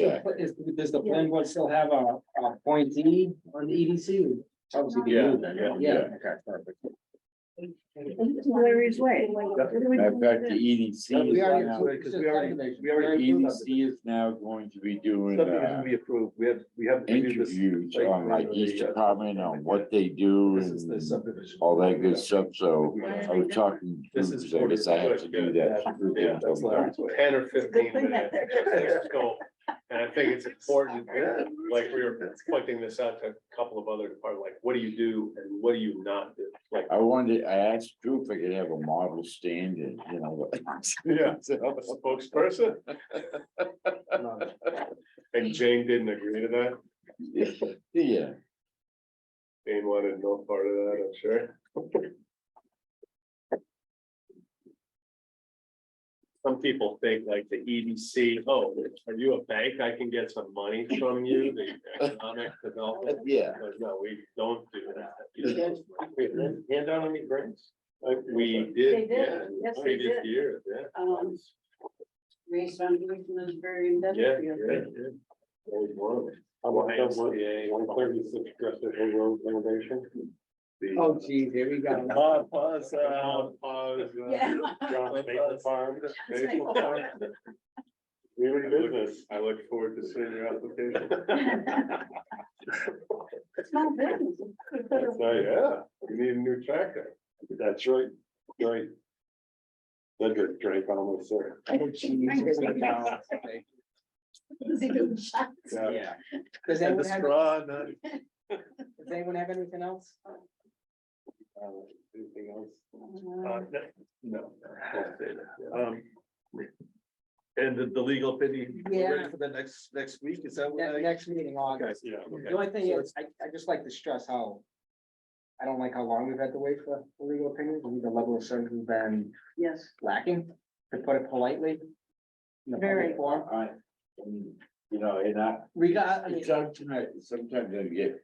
the, is, does the plan board still have a, a appointee on the EDC? Obviously, they do then, Yeah, yeah, yeah. okay, perfect. Larry's way. I've got the EDC. is No, we already now- approved- because we already- we already EDC is now going to be doing, Subdivision uh, we approved, we have, we have. we do this- interviews like, on like the, each uh, department on what they do This is the and subdivision. all that good stuff, so Yeah. I was talking to This is. groups, I guess I have to do that. Yeah, that's Larry's way. ten or fifteen Good thing that minutes. let's go. And I think it's important, like we were pointing this out to a couple of other departments, like what do you do and what do you not do? Like, I wanted, I asked Drew if I could have a model stand and, you know. yeah, spokesperson, and Jane didn't agree to that. Yeah, Jane wanted no part of that, I'm sure. Some people think like the EDC, oh, are you a bank? I can get some money from you, the economic development. yeah. But no, we don't do that. Hand down any grants? Uh, We did, They did, yeah, yes, they previous did. year, yeah. Um, Raised on, was very Yeah, industrial. yeah, yeah. Always one of them. How about that one, one thirty-six Crescent Hill Road renovation? Oh geez, here we go. Pause, pause, uh, pause. Yeah. John uh, Maple Farm. Maple Farm. We're in business. I look forward to seeing your application. It's not business. That's Oh, right, yeah, you need a new tractor. That's right, right. That good Drake almost there. Oh geez, here we go. Is it good shots? Yeah. Does anyone have, straw, not. does anyone have anything else? Anything else? Uh, No. Um. And the, the legal opinion, we're Yeah. ready for the next, next week, is that what Ne- I? Next meeting, August. Yeah. The only thing is, I, I just like to stress how. I don't like how long we've had to wait for legal opinions, and the level of service has been Yes, lacking, to put it politely. in the public Very. forum. I, you know, and I, We got, I mean, Sometimes, sometimes I get,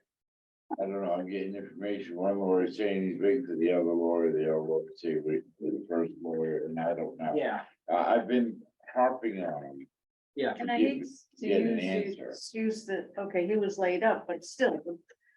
I don't know, I'm getting information, one lawyer saying he's big to the other lawyer, the other lawyer saying wait for the first lawyer, and I don't know. yeah, I, I've been harping on him. yeah. and I hate to Get an use, the answer. excuse that, okay, he was laid up, but still,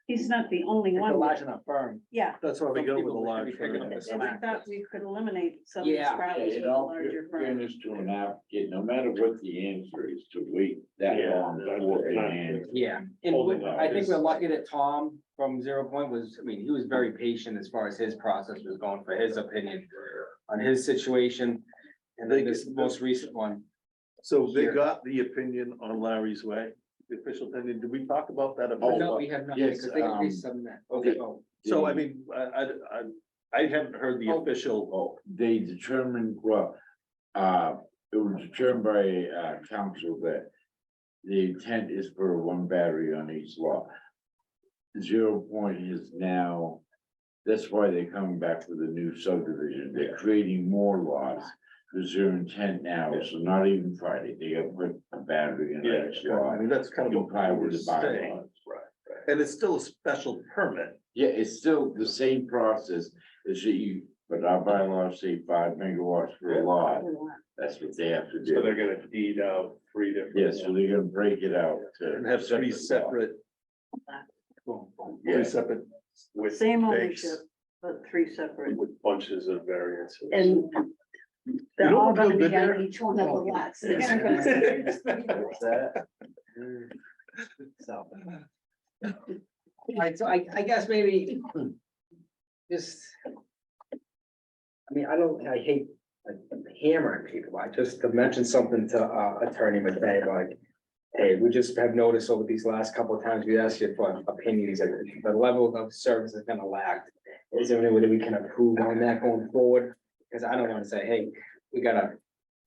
he's not the only It's a one. large enough firm. Yeah, That's why we go with the People would large. be picking up firm. the and I slack. thought we could eliminate some of these Yeah. problems with In a all larger firm. fairness to an applicant, no matter what the answer is, to wait that Yeah, long that's for an not- answer. Yeah, and Holding we- out I think is- we're lucky that Tom from Zero Point was, I mean, he was very patient as far as his process was going for his opinion on his situation. And then this most recent one, So they Here. got the opinion on Larry's way, the official opinion, did we talk about that? Oh, no, we have not, yes, because they um, agreed some that, okay, oh, So I mean, I, I, I- I haven't heard the official, Oh, they determined, well, uh, it was determined by, uh, council that the intent is for one battery on each lot. Zero point is now, that's why they're coming back with a new subdivision. They're creating more lots. Because their intent now is to not even Friday, they got to put a battery in yeah, each I lot. mean, that's kind of. what Comply we were with the saying. bylaws. And it's still a special permit. Yeah, it's still the same process as that you, but our bylaws say five megawatts per lot. That's what they have to So do. they're gonna deed out three different. Yeah, so they're gonna break it out. to And have three lots. separate. Yeah. Three separate. With Same stakes, ownership, but three separate. With bunches of variances. And they're You know all what gonna Bill be did there? on each one of the lots. They're Yes. gonna go- so. Alright, so I, I guess maybe just. I mean, I don't, I hate uh, hammering people, I just to mention something to uh, Attorney McVeigh, like. Hey, we just have noticed over these last couple of times we asked you for opinions, and the level of service has been lacked. Is there any way that we can improve on that going forward? Because I don't want to say, hey, we gotta,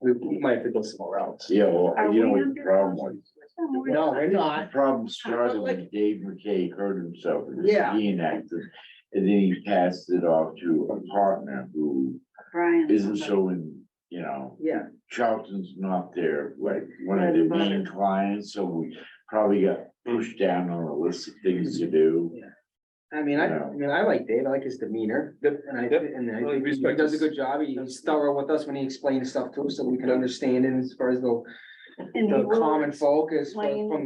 we we might have to go somewhere else. Yeah, well, Are you we know what the under problem was? contract? No, we're No, we're not. The problem started when Dave McKay hurt himself. in a Yeah. skiing accident, And then he passed it off to a partner who Brian. isn't so in, you know, Yeah, Charlton's not there, like, one of their main clients, so we probably got pushed down on a list of things to do. I mean, I, I mean, I like Dave, I like his demeanor, and I, and I think he does a good job, He- he's thorough with us when he explains stuff to us, so we can understand it as far as the. And he the will common focus from explain from